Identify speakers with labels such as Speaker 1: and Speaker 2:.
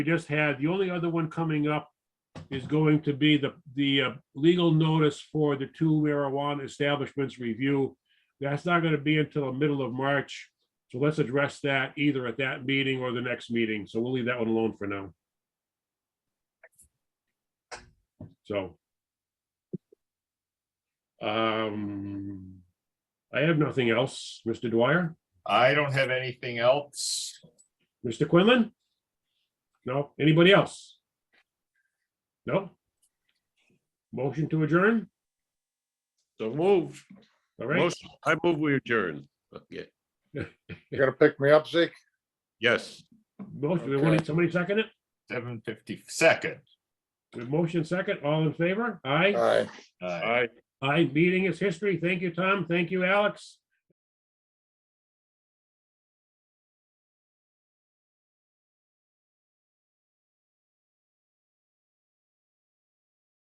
Speaker 1: we just had, the only other one coming up is going to be the, the uh, legal notice for the two marijuana establishments review. That's not going to be until the middle of March. So let's address that either at that meeting or the next meeting. So we'll leave that one alone for now. So. Um, I have nothing else. Mr. Dwyer,
Speaker 2: I don't have anything else.
Speaker 1: Mr. Quinlan? No, anybody else? No? Motion to adjourn?
Speaker 3: So move.
Speaker 1: All right,
Speaker 3: Motion- I move we adjourn. Okay,
Speaker 4: You gonna pick me up, Zeke?
Speaker 3: yes.
Speaker 1: motion,
Speaker 2: Okay.
Speaker 1: somebody second it?
Speaker 2: Seven fifty second.
Speaker 1: With Motion second, all in favor? Aye.
Speaker 4: Aye.
Speaker 2: Uh,
Speaker 3: Aye.
Speaker 1: Aye, meeting is history. Thank you, Tom. Thank you, Alex.